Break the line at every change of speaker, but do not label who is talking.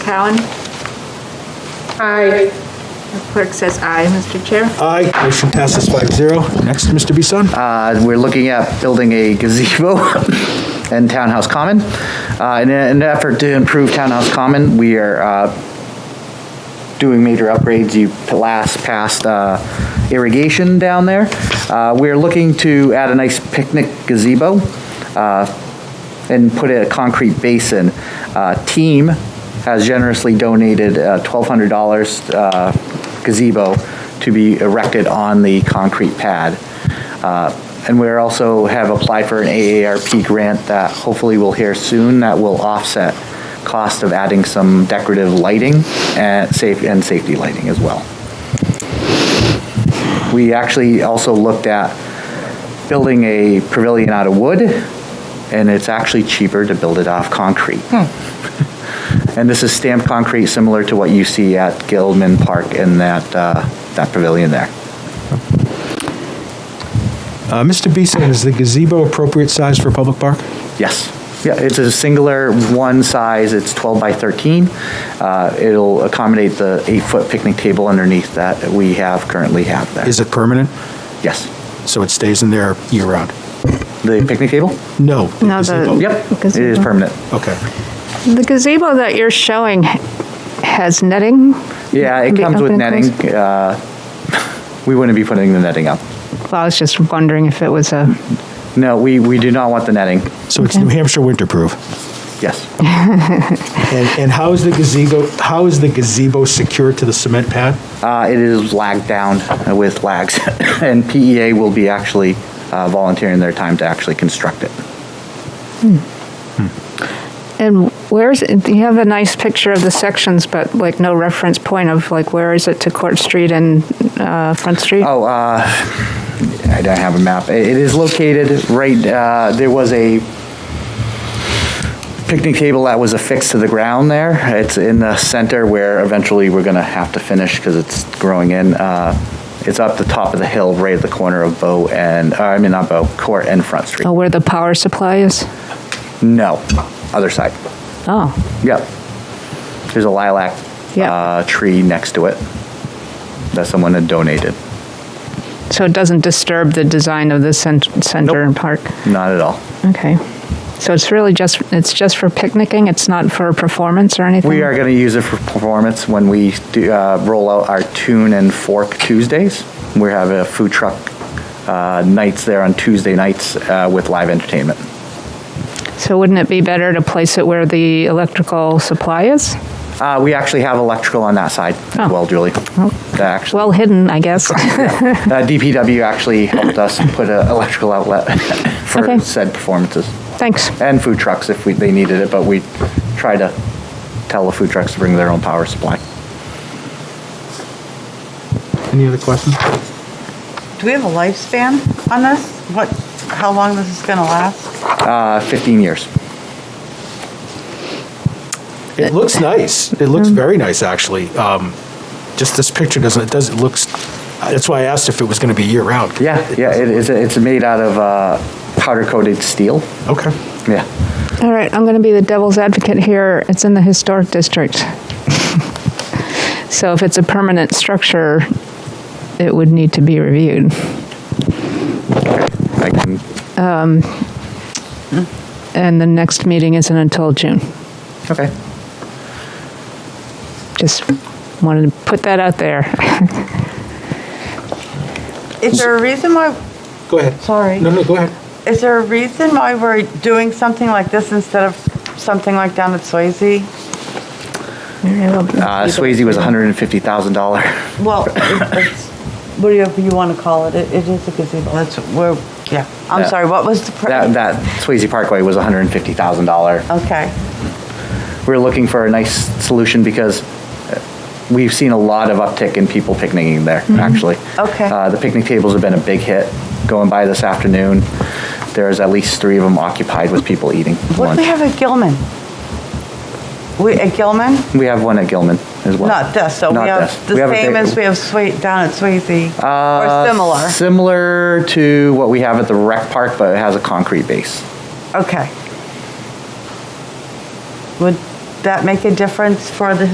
Cowan?
Aye.
The Clerk says aye, Mr. Chair.
Aye, motion passes five zero. Next, Mr. Bisson.
Uh, We're looking at building a gazebo in Townhouse Common. Uh, In an effort to improve Townhouse Common, we are uh, doing major upgrades. You last passed uh, irrigation down there. Uh, We're looking to add a nice picnic gazebo uh, and put a concrete basin. Uh, Team has generously donated uh, $1,200 uh, gazebo to be erected on the concrete pad. Uh, And we're also have applied for an AARP grant that hopefully we'll hear soon that will offset cost of adding some decorative lighting and safe, and safety lighting as well. We actually also looked at building a pavilion out of wood, and it's actually cheaper to build it off concrete. And this is stamped concrete, similar to what you see at Gilman Park in that, uh, that pavilion there.
Uh, Mr. Bisson, is the gazebo appropriate size for a public park?
Yes. Yeah, it's a singular one size, it's 12 by 13. Uh, It'll accommodate the eight-foot picnic table underneath that we have, currently have there.
Is it permanent?
Yes.
So it stays in there year-round?
The picnic table?
No. the
No, the-
gazebo.
Yep, it is
Gazebo.
permanent.
Okay.
The gazebo that you're showing ha- has netting?
Yeah, it
Can be
comes with
open and
netting.
closed?
uh, We wouldn't be putting the netting up.
Well, I was just wondering if it was a,
No, we, we do not want the netting.
So it's New Hampshire winterproof.
Yes.
And, and how is the gazebo, how is the gazebo secured to the cement pad?
Uh, It is lagged down with lags, and PEA will be actually uh, volunteering their time to actually construct it.
and where's, it- you have a nice picture of the sections, but like no reference point of like where is it to Court Street and uh, Front Street?
Oh, uh, I don't have a map. It it is located right, uh, there was a picnic table that was affixed to the ground there. It's in the center where eventually we're going to have to finish because it's growing in. Uh, It's up the top of the hill, right at the corner of Bow and, uh, I mean, not Bow, Court and Front Street.
Oh, Where the power supply is?
No, other side.
Oh,
Yep. There's a lilac
Yeah.
uh, tree next to it that someone had donated.
so it doesn't disturb the design of the cent- center and park?
Not at all.
Okay. So it's really just, it's just for picnicking? It's not for performance or anything?
We are going to use it for performance when we do, uh, roll out our Tune and Fork Tuesdays. We have a food truck uh, nights there on Tuesday nights uh, with live entertainment.
So wouldn't it be better to place it where the electrical supply is?
Uh, we actually have electrical on that side
Oh.
as well, Julie. That actually,
Well hidden, I guess.
uh, DPW actually helped us put an electrical outlet for
Okay.
said performances
Thanks.
and food trucks if we, they needed it, but we try to tell the food trucks to bring their own power supply.
Any other questions?
Do we have a lifespan on this? What, how long this is gonna last?
Uh, 15 years.
It looks nice. It looks very nice, actually. Um, Just this picture doesn't, it does, it looks, that's why I asked if it was going to be year-round.
Yeah, yeah, it is, it's made out of uh, powder coated steel.
Okay.
Yeah.
All right, I'm going to be the devil's advocate here. It's in the historic district. So if it's a permanent structure, it would need to be reviewed.
I can,
And the next meeting isn't until June.
okay.
Just wanted to put that out there.
Is there a reason why,
Go ahead.
Sorry.
No, no, go ahead.
is there a reason why we're doing something like this instead of something like down at Swayze?
Uh, Swayze was $150,000.
Well, it- it's, whatever you wanna call it, it it is a gazebo, that's, we're, yeah. I'm
That-
sorry, what was the price?
That, that Swayze Parkway was $150,000.
Okay,
We're looking for a nice solution because we've seen a lot of uptick in people picnicking there, actually.
Mm-hmm. Okay.
Uh, the picnic tables have been a big hit going by this afternoon. There's at least three of them occupied with people eating
what do we
lunch.
have at Gilman? We, at Gilman?
We have one at Gilman as well.
Not this, so we
Not
have
this.
the
We have a
same
big-
as we have Sway, down at Swayze,
Uh,
or similar,
Similar to what we have at the rec park, but it has a concrete base.
okay. Would, that make a difference for the